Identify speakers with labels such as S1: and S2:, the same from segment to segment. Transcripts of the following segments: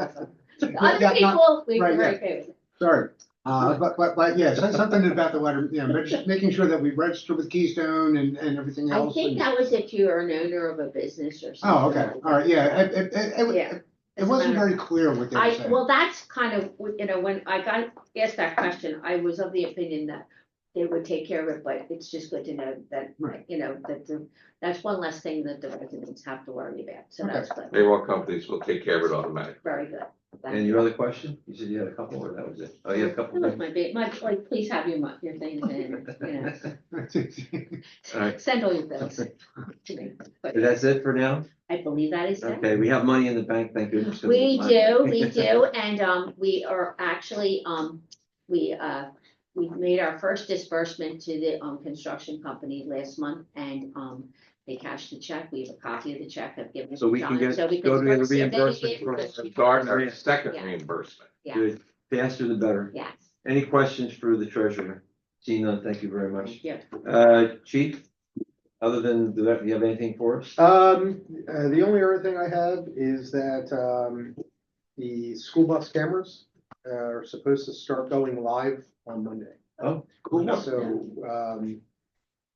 S1: The
S2: Yeah,
S1: Other
S2: not-
S1: people, we
S2: right,
S1: were
S2: yeah.
S1: okay with.
S2: Sorry, uh, but, but, but, yeah, so- something about the water, you know, but just making sure that we register with Keystone and, and everything
S1: I
S2: else.
S1: think
S2: and-
S1: that was if you are an owner of a business or something.
S2: Oh, okay,
S1: like
S2: all right,
S1: that.
S2: yeah, it, it, it- it,
S1: Yeah.
S2: it wasn't very clear what they were
S1: I,
S2: saying.
S1: well, that's kind of, you know, when I got asked that question, I was of the opinion that they would take care of it, but it's just good to know that,
S2: Right.
S1: you know, that the- that's one less thing that the residents have to worry about, so
S2: Okay.
S1: that's good.
S3: Payroll companies will take care of it automatically.
S1: very good. That-
S4: And your other question? You said you had a couple, or that was it? Oh, you had
S1: That
S4: a couple.
S1: was my big, my, like, please have your, mo- your things in, you know,
S4: Alright,
S1: send all your bills to me. But
S4: that's it for now?
S1: I believe that is it.
S4: Okay, we have money in the bank, thank goodness.
S1: We do, we do, and um, we are actually, um, we uh, we've made our first disbursement to the um, construction company last month and um. They cashed the check, we have a copy of the check, I've given it
S4: So
S1: to
S4: we can
S1: John,
S4: get-
S1: so we
S4: go
S1: can.
S4: to
S1: start-
S4: the
S1: so then
S4: reimbursement
S1: again,
S4: for-
S1: because-
S3: Gardner, second
S1: Yeah.
S3: reimbursement.
S4: Good, faster the better.
S1: Yes,
S4: Any questions for the treasurer? Seeing none, thank you very much.
S1: thank you.
S4: Uh, chief? Other than, do you have anything for us?
S5: Um, uh, the only other thing I have is that, um, the school bus cameras uh, are supposed to start going live on Monday.
S4: Oh,
S5: So, um,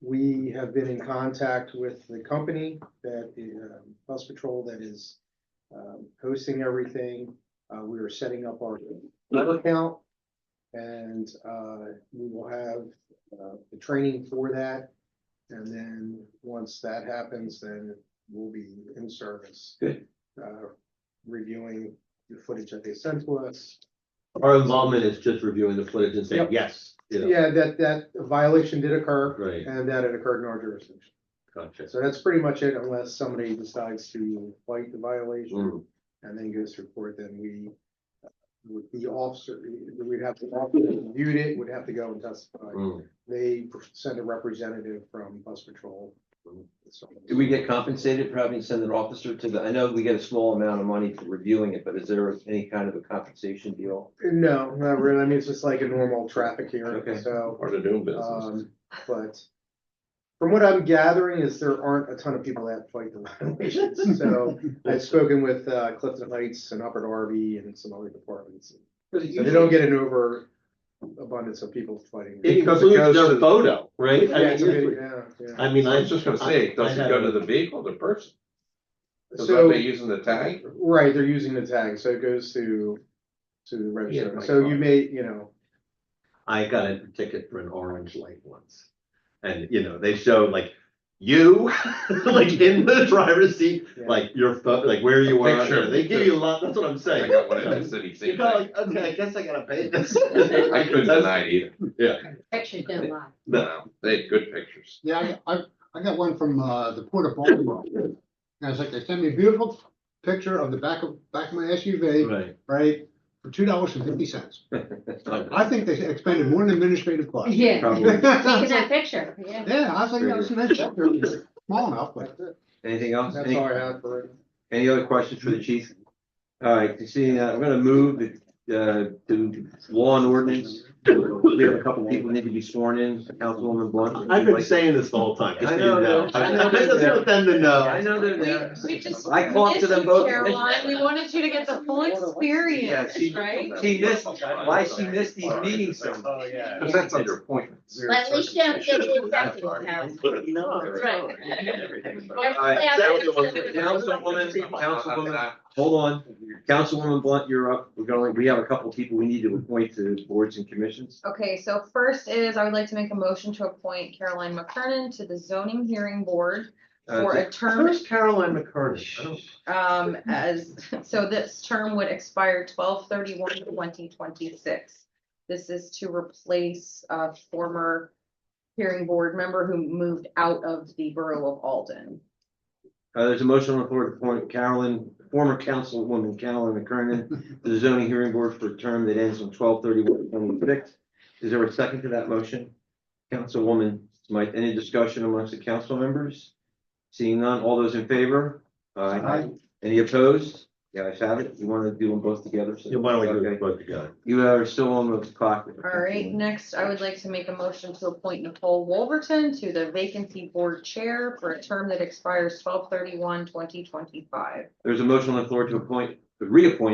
S5: we have been in contact with the company that, uh, bus patrol that is, um, hosting everything. Uh, we are setting up our Twitter account. And, uh, we will have, uh, the training for that. And then, once that happens, then we'll be in service.
S4: Good.
S5: Uh, reviewing the footage that they sent to us,
S4: our involvement is just reviewing the footage and
S5: saying,
S4: yes.
S5: yeah, that, that violation did occur.
S4: Right,
S5: And that it occurred in our jurisdiction.
S4: gotcha.
S5: So that's pretty much it unless somebody decides to fight the
S4: Mm.
S5: violation
S4: Mm-hmm.
S5: and then goes to court, then we. uh, Would the officer, we'd have to, viewed it, would have to go and testify.
S4: Mm.
S5: They send a representative from bus patrol.
S4: Mm.
S5: So-
S4: Do we get compensated for having to send an officer to the, I know we get a small amount of money for reviewing it, but is there any kind of a compensation deal?
S5: No, not really. I mean, it's just like a normal traffic
S4: Okay.
S5: hearing, so,
S3: Or to do business.
S5: um, but. From what I'm gathering is there aren't a ton of people that fight the violations, so. I've spoken with uh, Clifton Heights and Upper Darby and some other departments. So They don't get an over abundance of people fighting.
S6: It
S3: Because it goes
S6: includes
S3: to
S6: their
S3: the-
S6: photo, right?
S5: Yeah,
S6: I
S5: it's a
S6: mean,
S5: big- yeah, yeah.
S3: I
S6: I
S3: was
S6: mean,
S3: just gonna say, it doesn't go to the vehicle, the person, is that
S5: So,
S3: they using the tag?
S5: right, they're using the tag, so it goes to, to the
S3: Yeah,
S5: register.
S3: my
S5: So you
S3: God.
S5: may, you know,
S6: I got a ticket for an orange light once. And, you know, they showed like you, like in the driver's seat,
S5: Yeah.
S6: like your phone, like where you are.
S3: Picture.
S6: They give you a lot, that's what I'm
S3: I
S6: saying.
S3: got one in the city,
S6: You're
S3: same
S6: kinda
S3: thing.
S6: like, okay, I guess I gotta pay this.
S3: I couldn't deny it either,
S1: Pictures don't lie.
S3: no, they had good pictures.
S2: Yeah, I, I, I got one from, uh, the Port of Baltimore. And I was like, they sent me a beautiful picture of the back of, back of my SUV,
S4: Right.
S2: right, for two dollars and fifty cents. I think they expended more than administrative costs.
S1: Yeah,
S4: Probably.
S1: taking that picture, yeah.
S2: Yeah, I was like, that was an issue. They're small enough, but.
S5: that's it.
S4: Anything else?
S5: That's
S4: Any-
S5: all I have for it.
S4: Any other questions for the chief? All right, you see, uh, I'm gonna move uh, to law and ordinance. We have a couple people need to be sworn in, Councilwoman Blunt.
S6: I've been saying this the whole time. just
S4: I
S6: so you
S4: know,
S6: know.
S4: I know.
S6: I just want them to know.
S4: I know they're
S7: We,
S4: there.
S7: we just.
S4: I talked to them both.
S7: Caroline, we wanted you to get the full
S4: Yeah,
S7: experience,
S4: she-
S7: right?
S4: She missed, why she missed these meetings so much?
S6: yeah.
S3: Cause that's under appointments.
S1: But at least you have good executive power.
S4: Councilwoman, Councilwoman, hold on. Councilwoman Blunt, you're up. We're going, we have a couple people we need to appoint to boards and commissions.
S7: Okay, so first is, I would like to make a motion to appoint Caroline McKernan to the zoning hearing board
S4: Uh,
S7: for a term,
S6: Where's Caroline McCurdy? I don't-
S7: um, as, so this term would expire 12 31 2026. This is to replace a former hearing board member who moved out of the borough of Alden.
S4: Uh, there's a motion on the floor to appoint Carolyn, former councilwoman Carolyn McKernan to the zoning hearing board for a term that ends on 12 31 26. Is there a second to that motion? Councilwoman Smythe, any discussion amongst the council members? Seeing none, all those in favor? Aye.
S2: Aye.
S4: Any opposed? Yeah, I have it. You want to do them both together? so-
S6: Yeah, Why don't we do
S4: Okay.
S6: it both together?
S4: You are still on the clock.
S7: All right, next, I would like to make a motion to appoint Nicole Wolverton to the vacancy board chair for a term that expires 12 31 2025.
S4: There's a motion on the floor to appoint, to reappoint